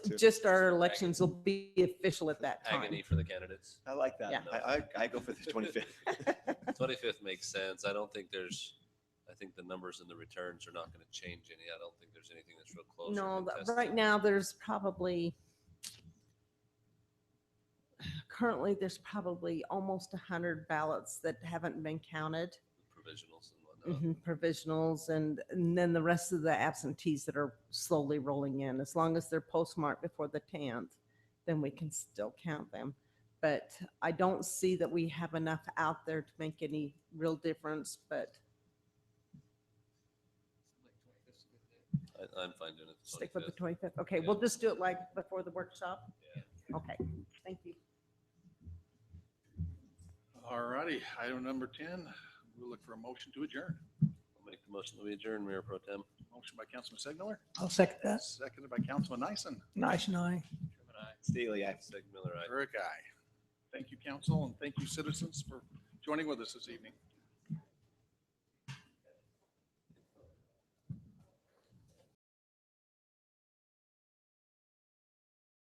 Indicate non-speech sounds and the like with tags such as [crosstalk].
too. just our elections will be official at that time. Agony for the candidates. I like that. Yeah. I, I, I go for the [laughs] 25th. 25th makes sense. I don't think there's, I think the numbers and the returns are not going to change any. I don't think there's anything that's real close. or No, but contested. right now, there's probably, currently, there's probably almost 100 ballots that haven't been counted, Provisionals and whatnot. mhm, provisionals, and, and then the rest of the absentees that are slowly rolling in. As long as they're postmarked before the 10th, then we can still count them. But I don't see that we have enough out there to make any real difference, but Mm-hmm. I, I'm fine doing it. the Stick with the 25th. 25th. Okay, we'll just do it like before the workshop? Okay, thank you. All righty, item number 10, we'll look for a motion to adjourn. I'll make the motion that we adjourn, Mayor Pro Tem. Motion by Councilman Segner, I'll second that. seconded by Councilman Nyson. Nice and I. Steely, I. Sig Miller, aye. Eric, aye. Thank you, council, and thank you, citizens, for joining with us this evening.